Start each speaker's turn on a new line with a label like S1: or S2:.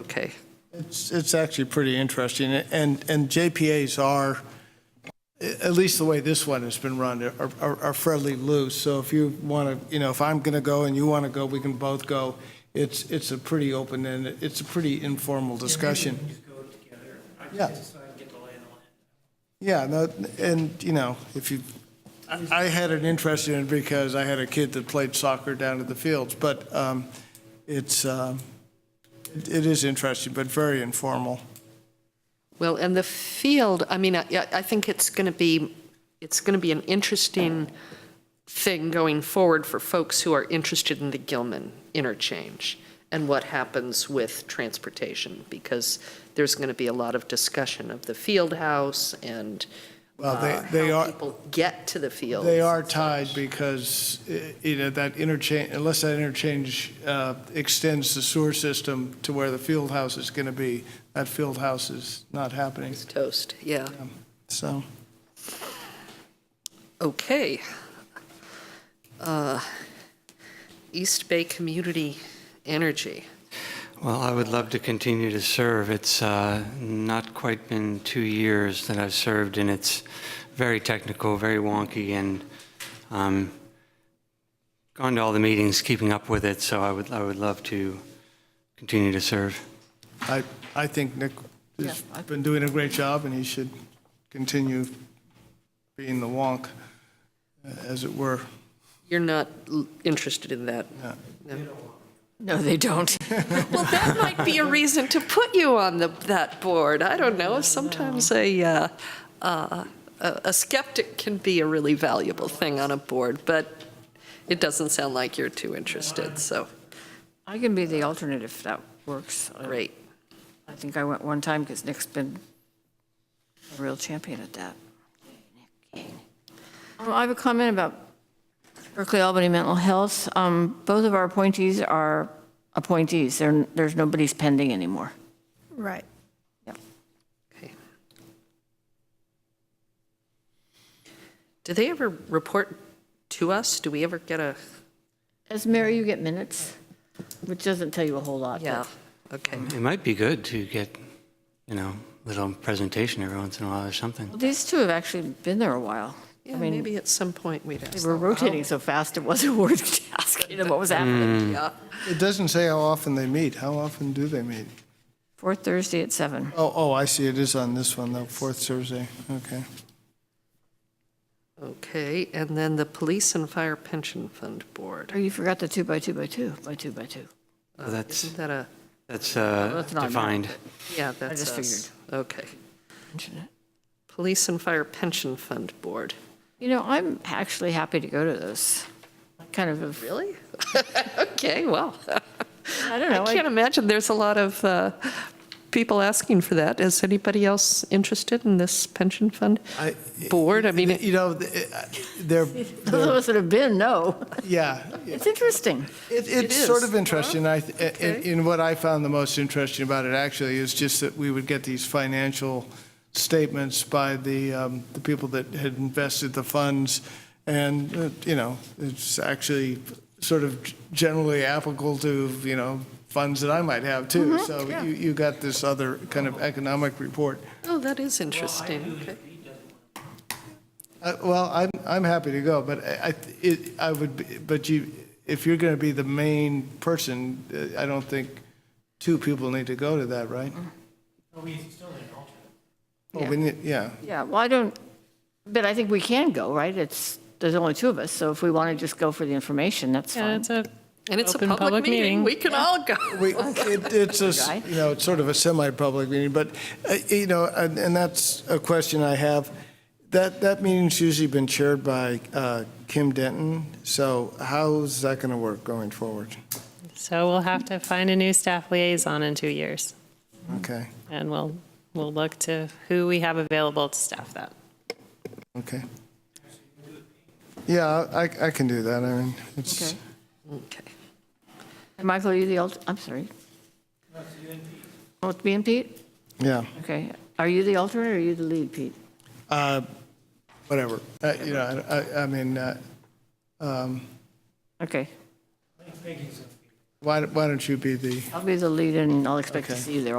S1: Okay.
S2: It's, it's actually pretty interesting, and, and JPAs are, at least the way this one has been run, are- are are fairly loose, so if you want to, you know, if I'm going to go and you want to go, we can both go. It's, it's a pretty open and it's a pretty informal discussion.
S3: Just go together. I
S2: Yeah.
S3: just so I can get the lay of the land.
S2: Yeah, no, and, you know, if you, I- I had an interest in it because I had a kid that played soccer down at the fields, but um, it's, um, it it is interesting, but very informal.
S1: Well, and the field, I mean, I, I think it's going to be, it's going to be an interesting thing going forward for folks who are interested in the Gilman interchange and what happens with transportation, because there's going to be a lot of discussion of the field house and
S2: Well, they-
S1: uh,
S2: they
S1: how
S2: are-
S1: people get to the field.
S2: They are tied because, eh, you know, that interchange, unless that interchange uh, extends the sewer system to where the field house is going to be, that field house is not happening,
S1: It's toast, yeah.
S2: so.
S1: Okay. Uh, East Bay Community Energy.
S4: Well, I would love to continue to serve. It's uh, not quite been two years that I've served, and it's very technical, very wonky, and um, gone to all the meetings, keeping up with it. So I would, I would love to continue to serve.
S2: I, I think Nick has
S1: Yeah, I-
S2: been doing a great job, and he should continue being the wonk, eh, as it were.
S1: You're not l- interested in that?
S2: No.
S1: No, they don't. Well, that might be a reason to put you on the, that board. I don't know. Sometimes a, uh, uh, a a skeptic can be a really valuable thing on a board, but it doesn't sound like you're too interested, so,
S5: I can be the alternate if that works. I-
S1: great.
S5: I think I went one time because Nick's been a real champion at that. Um, I have a comment about Berkeley Albany Mental Health. Um, Both of our appointees are appointees. There- There's nobody's pending anymore.
S6: Right.
S1: Okay. Do they ever report to us? Do we ever get a,
S5: As Mary, you get minutes, which doesn't tell you a whole lot. but-
S1: yeah, okay.
S4: It might be good to get, you know, little presentation every once in a while or something.
S5: Well, These two have actually been there a while. I
S1: Yeah,
S5: mean,
S1: maybe at some point we'd ask.
S5: they were
S1: them.
S5: rotating so fast, it wasn't worth asking them what was
S1: Mm-hmm.
S5: happening.
S1: Yeah.
S2: It doesn't say how often they meet. How often do they meet?
S5: Fourth Thursday at seven.
S2: Oh, oh, I see, it is on this one, the fourth Thursday, okay.
S1: Okay, and then the Police and Fire Pension Fund Board.
S5: Oh, you forgot the two by two by two, by two by two.
S4: So that's
S1: Isn't that a,
S4: that's, uh,
S5: that's not
S4: defined.
S1: yeah, that's
S5: just
S1: us. Okay.
S5: Mention it.
S1: Police and Fire Pension Fund Board.
S5: You know, I'm actually happy to go to those. I Kind of, have-
S1: Really? Okay, well,
S5: I don't
S1: I
S5: know.
S1: can't
S5: I-
S1: imagine there's a lot of uh, people asking for that. Is anybody else interested in this pension fund
S2: I-
S1: board? I mean,
S2: You know, th- eh, they're,
S5: Those of us that have been, no.
S2: yeah,
S5: It's interesting.
S2: It, it's
S1: is,
S2: sort of interesting. I,
S1: okay.
S2: in, in what I found the most interesting about it actually is just that we would get these financial statements by the um, the people that had invested the funds, and uh, you know, it's actually sort of generally applicable to you know funds that I might have too.
S1: Mm-hmm.
S2: so you, you got this other kind of economic report.
S1: oh, that is interesting. Okay.
S2: Uh, Well, I'm, I'm happy to go, but I, I- it, I would, be- but you, if you're going to be the main person, uh, I don't think two people need to go to that, right?
S3: Oh, we still need an alternate.
S2: Well, we need, yeah.
S5: Yeah, well, I don't, but I think we can go, right? It's, there's only two of us, so if we want to just go for the information, that's
S7: Yeah,
S5: fine.
S7: it's a,
S1: And it's a
S7: Open
S1: public
S7: public
S1: meeting.
S7: meeting.
S1: We can all go.
S2: We, it, it's a, s- you know, it's sort of a semi-public meeting, but, uh, you know, and, and that's a question I have. That, that meeting's usually been chaired by, uh, Kim Denton, so how's that going to work going forward?
S7: so we'll have to find a new staff liaison in two years,
S2: Okay,
S7: and we'll, we'll look to who we have available to staff that.
S2: okay. Yeah, I, I can do that. I mean, it's,
S5: Okay.
S1: Okay.
S5: And Michael, are you the alt, I'm sorry. Oh, it's me and Pete?
S2: yeah.
S5: Okay. Are you the alternate or are you the lead, Pete?
S2: Uh, Whatever, Uh, you know, I- I, I mean, uh,
S5: Okay.
S2: Why, why don't you be the?
S5: I'll be the lead and I'll expect to see you there